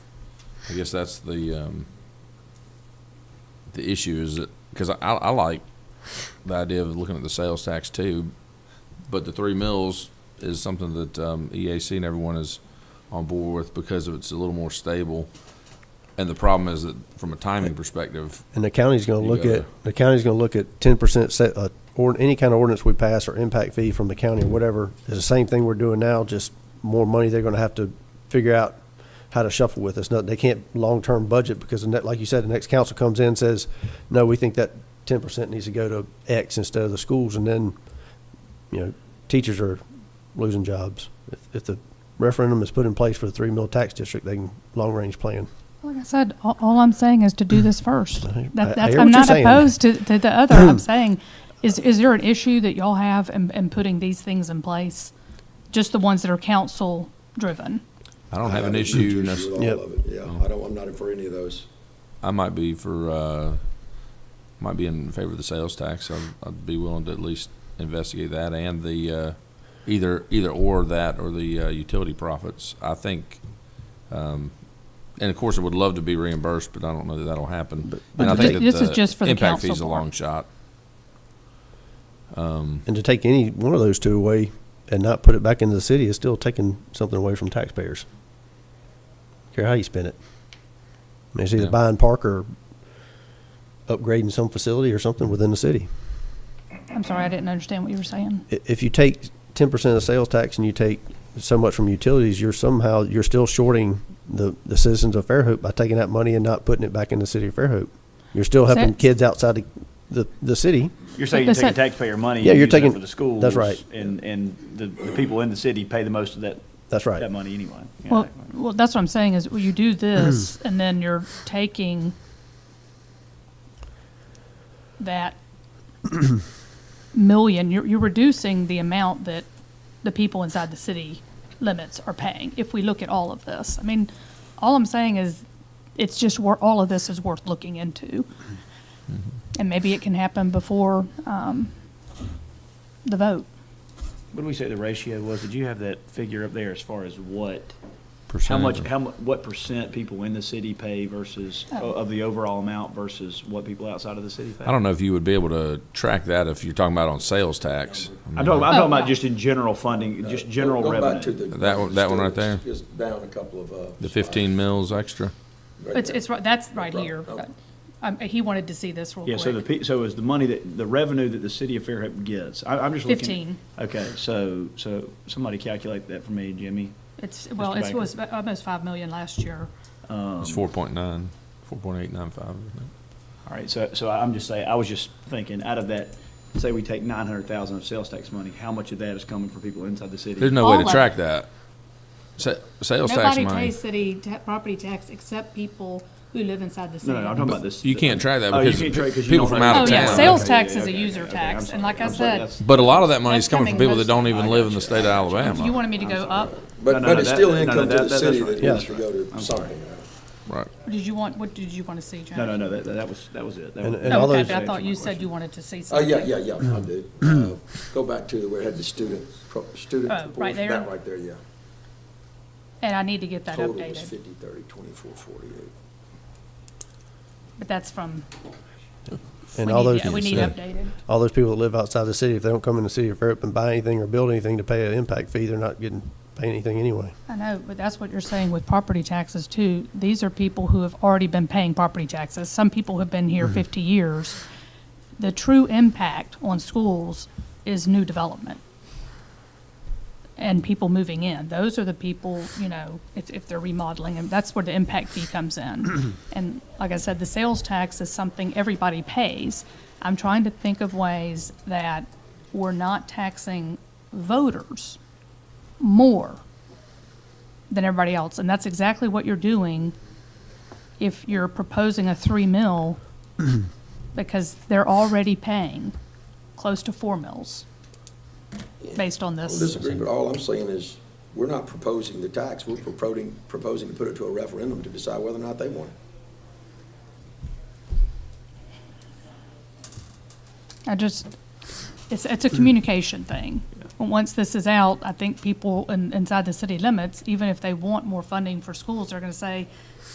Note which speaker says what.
Speaker 1: I guess that's the, um, the issue is that, because I, I like the idea of looking at the sales tax too, but the three mills is something that, um, EAC and everyone is on board with because of it's a little more stable. And the problem is that from a timing perspective,
Speaker 2: And the county's gonna
Speaker 1: You
Speaker 2: look
Speaker 1: gotta-
Speaker 2: at, the county's gonna look at ten percent set, uh, or any kind of ordinance we pass or impact fee from the county or whatever, is the same thing we're doing now, just more money they're gonna have to figure out how to shuffle with. It's not, they can't long-term budget because the net, like you said, the next council comes in and says, no, we think that ten percent needs to go to X instead of the schools, and then, you know, teachers are losing jobs. If, if the referendum is put in place for the three mil tax district, they can long-range plan.
Speaker 3: Like I said, all, all I'm saying is to do this first.
Speaker 2: I- I
Speaker 3: That, that's,
Speaker 2: hear what
Speaker 3: I'm
Speaker 2: you're
Speaker 3: not
Speaker 2: saying.
Speaker 3: opposed to, to the other. I'm saying, is, is there an issue that y'all have in, in putting these things in place? Just the ones that are council driven?
Speaker 1: I don't have an
Speaker 4: a
Speaker 1: issue. nec-
Speaker 4: with all
Speaker 2: Yep.
Speaker 4: of it. Yeah, I don't, I'm not for any of those.
Speaker 1: I might be for, uh, might be in favor of the sales tax. I'd, I'd be willing to at least investigate that and the, uh, either, either or that or the, uh, utility profits. I think, um, and of course, I would love to be reimbursed, but I don't know that that'll happen.
Speaker 3: but
Speaker 1: And I think
Speaker 3: thi-
Speaker 1: that
Speaker 3: this is just for the
Speaker 1: Impact
Speaker 3: council
Speaker 1: fee's a
Speaker 3: part.
Speaker 1: long shot.
Speaker 2: And to take any one of those two away and not put it back into the city is still taking something away from taxpayers. Care how you spend it. I mean, it's either
Speaker 1: Yeah.
Speaker 2: buying park or upgrading some facility or something within the city.
Speaker 3: I'm sorry, I didn't understand what you were saying.
Speaker 2: I- If you take ten percent of sales tax and you take so much from utilities, you're somehow, you're still shorting the, the citizens of Fairhope by taking that money and not putting it back in the city of Fairhope. You're still
Speaker 3: So-
Speaker 2: helping kids outside the, the, the city.
Speaker 5: You're saying
Speaker 3: they
Speaker 5: you're taking
Speaker 3: said-
Speaker 5: taxpayer money.
Speaker 2: Yeah,
Speaker 5: and
Speaker 2: you're
Speaker 5: using it
Speaker 2: taking-
Speaker 5: For the schools.
Speaker 2: that's right.
Speaker 5: And, and the, the people in the city pay the most of that.
Speaker 2: That's right.
Speaker 5: That money anyway. Yeah,
Speaker 3: Well,
Speaker 5: that-
Speaker 3: well, that's what I'm saying is well, you do this and then you're taking that million, you're, you're reducing the amount that the people inside the city limits are paying. If we look at all of this, I mean, all I'm saying is it's just wor all of this is worth looking into. And maybe it can happen before, um, the vote.
Speaker 5: What did we say the ratio was? Did you have that figure up there as far as what? How much, how, mu- what percent people in the city pay versus,
Speaker 3: Oh.
Speaker 5: of the overall amount versus what people outside of the city pay?
Speaker 1: I don't know if you would be able to track that if you're talking about on sales tax.
Speaker 5: I'm talking, I'm
Speaker 3: Oh,
Speaker 5: talking
Speaker 3: no.
Speaker 5: about just in general funding, just general
Speaker 4: Uh, Go back to
Speaker 5: revenue.
Speaker 4: the-
Speaker 1: That one- that one right there?
Speaker 4: It's down a couple of, uh.
Speaker 1: The fifteen mils extra.
Speaker 4: right
Speaker 3: It's,
Speaker 4: there.
Speaker 3: it's, right- that's right
Speaker 4: Right.
Speaker 3: here.
Speaker 4: Okay.
Speaker 3: Um, he wanted to see this real
Speaker 5: Yeah,
Speaker 3: quick.
Speaker 5: so the, pe- so is the money that, the revenue that the city of Fairhope gets? I, I'm just looking.
Speaker 3: 15.
Speaker 5: Okay, so, so somebody calculate that for me, Jimmy.
Speaker 3: It's, well,
Speaker 5: Mr.
Speaker 3: it
Speaker 5: Baker.
Speaker 3: was about- almost five million last year.
Speaker 1: It's four point nine, four point eight nine five, isn't it?
Speaker 5: All right, so, so I'm just saying, I was just thinking, out of that, say we take nine hundred thousand of sales tax money, how much of that is coming from people inside the city?
Speaker 1: There's no way
Speaker 3: All
Speaker 1: to
Speaker 3: of
Speaker 1: track that. Sa- Sales tax
Speaker 3: Nobody
Speaker 1: money.
Speaker 3: pays city ta- property tax except people who live inside the city.
Speaker 5: No, no, I'm talking about this.
Speaker 1: You can't track that
Speaker 5: Oh, you
Speaker 1: because
Speaker 5: can't track 'cause you
Speaker 1: people
Speaker 5: don't
Speaker 1: from
Speaker 5: know.
Speaker 1: out
Speaker 3: Oh,
Speaker 1: of
Speaker 3: yeah,
Speaker 1: town.
Speaker 3: sales
Speaker 5: Okay,
Speaker 3: tax
Speaker 5: yeah,
Speaker 3: is a
Speaker 5: okay,
Speaker 3: user
Speaker 5: okay, I'm
Speaker 3: tax,
Speaker 5: sorry.
Speaker 3: and like I
Speaker 5: I'm sorry,
Speaker 3: said,
Speaker 5: that's-
Speaker 1: But a lot of that money is
Speaker 3: That's
Speaker 1: coming from
Speaker 3: coming
Speaker 1: people that don't
Speaker 3: mostly-
Speaker 1: even
Speaker 5: I
Speaker 1: live in
Speaker 5: got
Speaker 1: the
Speaker 5: you.
Speaker 1: state of
Speaker 3: if you
Speaker 1: Alabama.
Speaker 3: wanted me to go up,
Speaker 4: But,
Speaker 5: No, no,
Speaker 4: but
Speaker 5: no,
Speaker 4: it's
Speaker 5: that-
Speaker 4: still
Speaker 5: no, no,
Speaker 4: income to
Speaker 5: that-
Speaker 4: the
Speaker 5: that's
Speaker 4: city
Speaker 5: right.
Speaker 4: that
Speaker 5: Yeah.
Speaker 4: needs to go to
Speaker 5: I'm sorry.
Speaker 4: something.
Speaker 1: Right.
Speaker 3: did you want, what did you want to see, Jack?
Speaker 5: No, no, no, that, that was, that was it. That
Speaker 2: And-
Speaker 5: was-
Speaker 2: and
Speaker 3: Oh,
Speaker 2: all
Speaker 3: okay,
Speaker 2: those-
Speaker 3: but I thought you said you wanted to see
Speaker 4: Oh,
Speaker 3: something.
Speaker 4: yeah, yeah, yeah, I do. Uh, Go back to where it had the student, pro- student
Speaker 3: Oh, right
Speaker 4: proportion,
Speaker 3: there?
Speaker 4: that right there, yeah.
Speaker 3: And I need to get that
Speaker 4: Total was
Speaker 3: updated,
Speaker 4: fifty, thirty, twenty-four, forty-eight.
Speaker 3: but that's from, we
Speaker 2: And all
Speaker 3: need,
Speaker 2: those.
Speaker 3: yeah, we need updated.
Speaker 2: all those people that live outside the city, if they don't come in the city of Fairhope and buy anything or build anything to pay an impact fee, they're not getting, paying anything anyway.
Speaker 3: I know, but that's what you're saying with property taxes too. These are people who have already been paying property taxes. Some people have been
Speaker 2: Mm-hmm.
Speaker 3: here 50 years. The true impact on schools is new development and people moving in. Those are the people, you know, if, if they're remodeling, and that's where the impact fee comes in. And like I said, the sales tax is something everybody pays. I'm trying to think of ways that we're not taxing voters more than everybody else, and that's exactly what you're doing if you're proposing a three mil, because they're already paying close to four mils based on
Speaker 4: I don't
Speaker 3: this.
Speaker 4: disagree, but all I'm saying is, we're not proposing the tax, we're proposing, proposing to put it to a referendum to decide whether or not they want it.
Speaker 3: I just, it's, it's a communication thing. And Once this is out, I think people in, inside the city limits, even if they want more funding for schools, they're gonna say,